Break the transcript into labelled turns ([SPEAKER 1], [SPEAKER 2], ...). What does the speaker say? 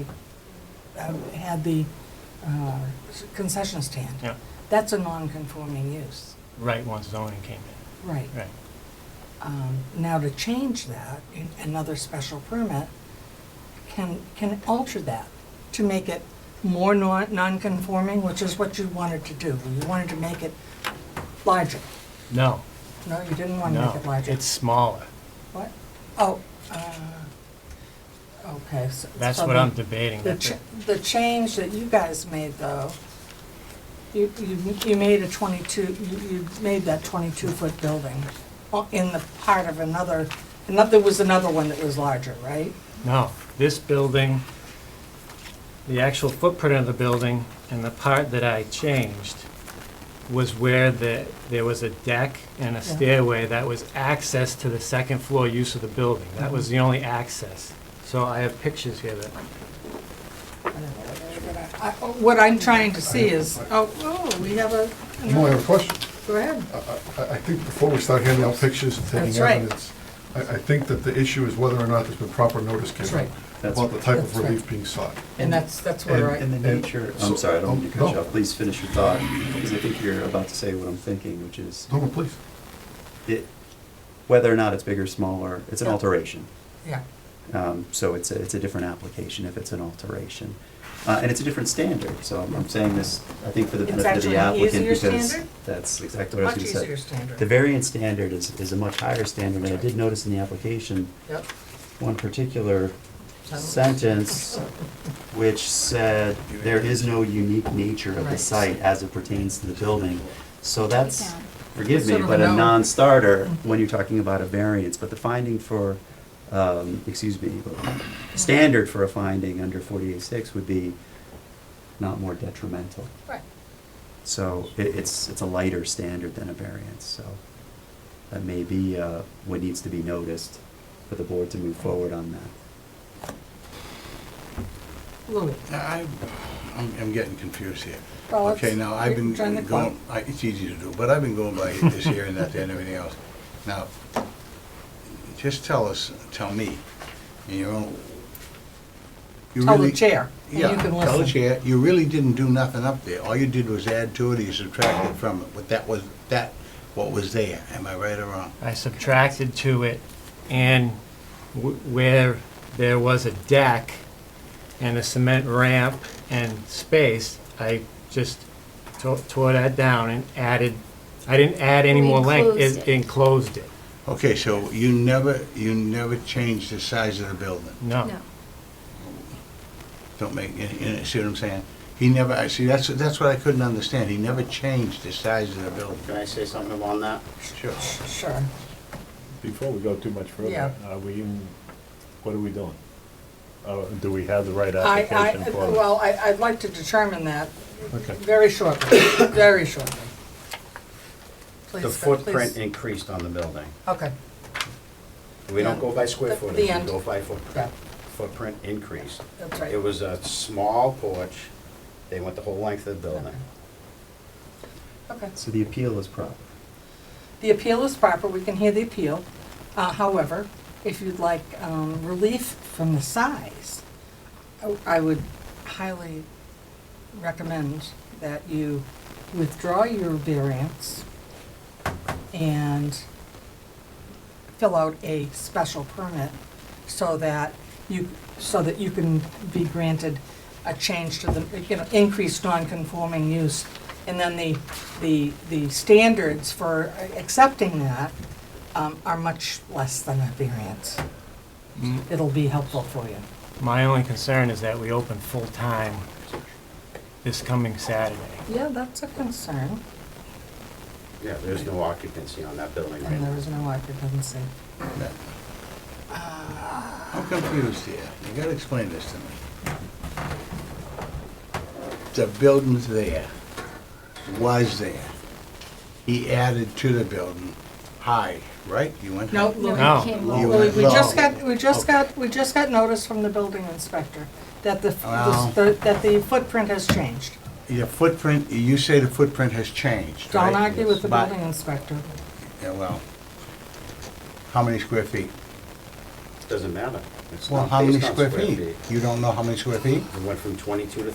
[SPEAKER 1] uh, had the uh, concession stand.
[SPEAKER 2] Yeah.
[SPEAKER 1] That's a non-conforming use.
[SPEAKER 2] Right, once zoning came in,
[SPEAKER 1] Right.
[SPEAKER 2] right.
[SPEAKER 1] Um, Now, to change that, in another special permit can, can alter that to make it more non- non-conforming, which is what you wanted to do. You wanted to make it larger.
[SPEAKER 2] No,
[SPEAKER 1] No, you didn't want to
[SPEAKER 2] no,
[SPEAKER 1] make it larger.
[SPEAKER 2] it's smaller.
[SPEAKER 1] What? Oh, uh, okay. so-
[SPEAKER 2] That's
[SPEAKER 1] so
[SPEAKER 2] what I'm
[SPEAKER 1] the-
[SPEAKER 2] debating.
[SPEAKER 1] The,
[SPEAKER 2] That's
[SPEAKER 1] ch-
[SPEAKER 2] it.
[SPEAKER 1] the change that you guys made, though, you, you, you made a twenty-two, you, you made that twenty-two-foot building o- in the part of another, another, there was another one that was larger, right?
[SPEAKER 2] No, this building, the actual footprint of the building and the part that I changed was where the, there was a deck and a stairway that was access to the second floor use of the building. That was the only access. So I have pictures here that,
[SPEAKER 1] I don't know what I- I- oh, What I'm trying to see is, oh, oh, we have a,
[SPEAKER 3] No, I have a question.
[SPEAKER 1] go ahead.
[SPEAKER 3] I, I- I think before we start handing out pictures and
[SPEAKER 1] That's
[SPEAKER 3] taking
[SPEAKER 1] right.
[SPEAKER 3] evidence, I, I think that the issue is whether or not there's been proper notice
[SPEAKER 1] That's
[SPEAKER 3] given
[SPEAKER 1] right.
[SPEAKER 4] That's
[SPEAKER 3] about the type of
[SPEAKER 1] That's right.
[SPEAKER 3] relief being sought.
[SPEAKER 1] And that's, that's where
[SPEAKER 4] And
[SPEAKER 1] I,
[SPEAKER 4] the
[SPEAKER 3] And-
[SPEAKER 4] nature, Oh, I'm sorry, I don't mean to cut you
[SPEAKER 3] No.
[SPEAKER 4] off, please finish your thought, because I think you're about to say what I'm thinking, which is
[SPEAKER 3] No, no, please.
[SPEAKER 4] it, whether or not it's big or smaller, it's an
[SPEAKER 1] Yeah.
[SPEAKER 4] alteration.
[SPEAKER 1] yeah,
[SPEAKER 4] Um, So it's, a- it's a different application if it's an alteration. Uh, And it's a different standard, so I'm I'm saying this, I think, for the
[SPEAKER 1] It's
[SPEAKER 4] benefit of
[SPEAKER 1] actually
[SPEAKER 4] the
[SPEAKER 1] an
[SPEAKER 4] applicant,
[SPEAKER 1] easier
[SPEAKER 4] because
[SPEAKER 1] standard?
[SPEAKER 4] that's exactly what I
[SPEAKER 1] much
[SPEAKER 4] was
[SPEAKER 1] easier
[SPEAKER 4] gonna say. The
[SPEAKER 1] standard.
[SPEAKER 4] variance standard is, is a much higher standard, and I did notice in the application,
[SPEAKER 1] Yep.
[SPEAKER 4] one particular
[SPEAKER 1] Sentence.
[SPEAKER 4] sentence which said, there is no unique nature of the
[SPEAKER 1] Right.
[SPEAKER 4] site as it pertains to the building. So that's,
[SPEAKER 5] down.
[SPEAKER 4] forgive me,
[SPEAKER 1] Sort of
[SPEAKER 4] but
[SPEAKER 1] a
[SPEAKER 4] a
[SPEAKER 1] no.
[SPEAKER 4] non-starter when you're talking about a variance. But the finding for, um, excuse me, standard for a finding under 48.6 would be not more detrimental.
[SPEAKER 1] Right.
[SPEAKER 4] So it, it's, it's a lighter standard than a variance, so that may be, uh, what needs to be noticed for the board to move forward on that.
[SPEAKER 1] Louis.
[SPEAKER 6] I, I'm, I'm getting confused here.
[SPEAKER 1] Well, let's
[SPEAKER 6] Okay, now, I've been
[SPEAKER 1] turn the clock.
[SPEAKER 6] going, I- it's easy to do, but I've been going by this here and that there and everything else. Now, just tell us, tell me, in your own. you
[SPEAKER 1] Tell the
[SPEAKER 6] really-
[SPEAKER 1] chair, and you
[SPEAKER 6] Yeah,
[SPEAKER 1] can
[SPEAKER 6] tell the
[SPEAKER 1] listen.
[SPEAKER 6] chair, you really didn't do nothing up there. All you did was add to it, you subtracted from it, but that was, that, what was there. Am I right or wrong?
[SPEAKER 2] I subtracted to it and w- where there was a deck and a cement ramp and space, I just to- tore that down and added, I didn't add any more length.
[SPEAKER 5] Enclosed it.
[SPEAKER 2] Enclosed it,
[SPEAKER 6] Okay, so you never, you never changed the size of the building?
[SPEAKER 2] no.
[SPEAKER 5] No,
[SPEAKER 6] Don't make, you you see what I'm saying? He never, I see, that's, that's what I couldn't understand. He never changed the size of the building.
[SPEAKER 7] Can I say something on that?
[SPEAKER 6] Sure.
[SPEAKER 1] Sure.
[SPEAKER 8] Before we go too much
[SPEAKER 1] Yeah.
[SPEAKER 8] further, are we, even- what are we doing? Uh, Do we have the right
[SPEAKER 1] I,
[SPEAKER 8] application
[SPEAKER 1] I,
[SPEAKER 8] for it?
[SPEAKER 1] well, I, I'd like to determine that
[SPEAKER 8] Okay.
[SPEAKER 1] very shortly, very shortly. Please,
[SPEAKER 7] The
[SPEAKER 1] go- please.
[SPEAKER 7] footprint increased on the building.
[SPEAKER 1] Okay,
[SPEAKER 7] We don't go by square
[SPEAKER 1] The- the
[SPEAKER 7] footage, we
[SPEAKER 1] end.
[SPEAKER 7] go by
[SPEAKER 1] yeah,
[SPEAKER 7] footprint. Footprint increased.
[SPEAKER 1] that's
[SPEAKER 7] It
[SPEAKER 1] right.
[SPEAKER 7] was a small porch, they went the whole length of the building.
[SPEAKER 1] Okay.
[SPEAKER 4] So the appeal is proper.
[SPEAKER 1] The appeal is proper, we can hear the appeal. Uh, However, if you'd like um, relief from the size, I- I would highly recommend that you withdraw your variance and fill out a special permit so that you, so that you can be granted a change to the, you know, increased non-conforming use. And then the, the, the standards for accepting that um, are much less than a variance.
[SPEAKER 6] Mm-hmm.
[SPEAKER 1] It'll be helpful for you.
[SPEAKER 2] My only concern is that we open full-time this coming Saturday.
[SPEAKER 1] Yeah, that's a concern,
[SPEAKER 7] Yeah, there's no occupancy on that building right
[SPEAKER 1] and there
[SPEAKER 7] now.
[SPEAKER 1] is no occupancy.
[SPEAKER 6] I'm confused here. You gotta explain this to me. The building's there, was there. He added to the building, high, right? You went
[SPEAKER 1] No,
[SPEAKER 6] high?
[SPEAKER 1] Louis.
[SPEAKER 2] No.
[SPEAKER 5] can't
[SPEAKER 6] Well,
[SPEAKER 1] Well, we- we just
[SPEAKER 6] No.
[SPEAKER 1] got, we just
[SPEAKER 6] Oh.
[SPEAKER 1] got, we just got notice from the building inspector that the, f-
[SPEAKER 6] Well-
[SPEAKER 1] the- that the footprint has changed.
[SPEAKER 6] Your footprint, you say the footprint has changed, right?
[SPEAKER 1] Don't argue with the
[SPEAKER 6] But-
[SPEAKER 1] building inspector.
[SPEAKER 6] Yeah, well, how many square feet?
[SPEAKER 7] Doesn't matter. It's
[SPEAKER 6] Well,
[SPEAKER 7] not
[SPEAKER 6] how many
[SPEAKER 7] based on
[SPEAKER 6] square feet? You don't know how many square feet?
[SPEAKER 7] It went from twenty-two to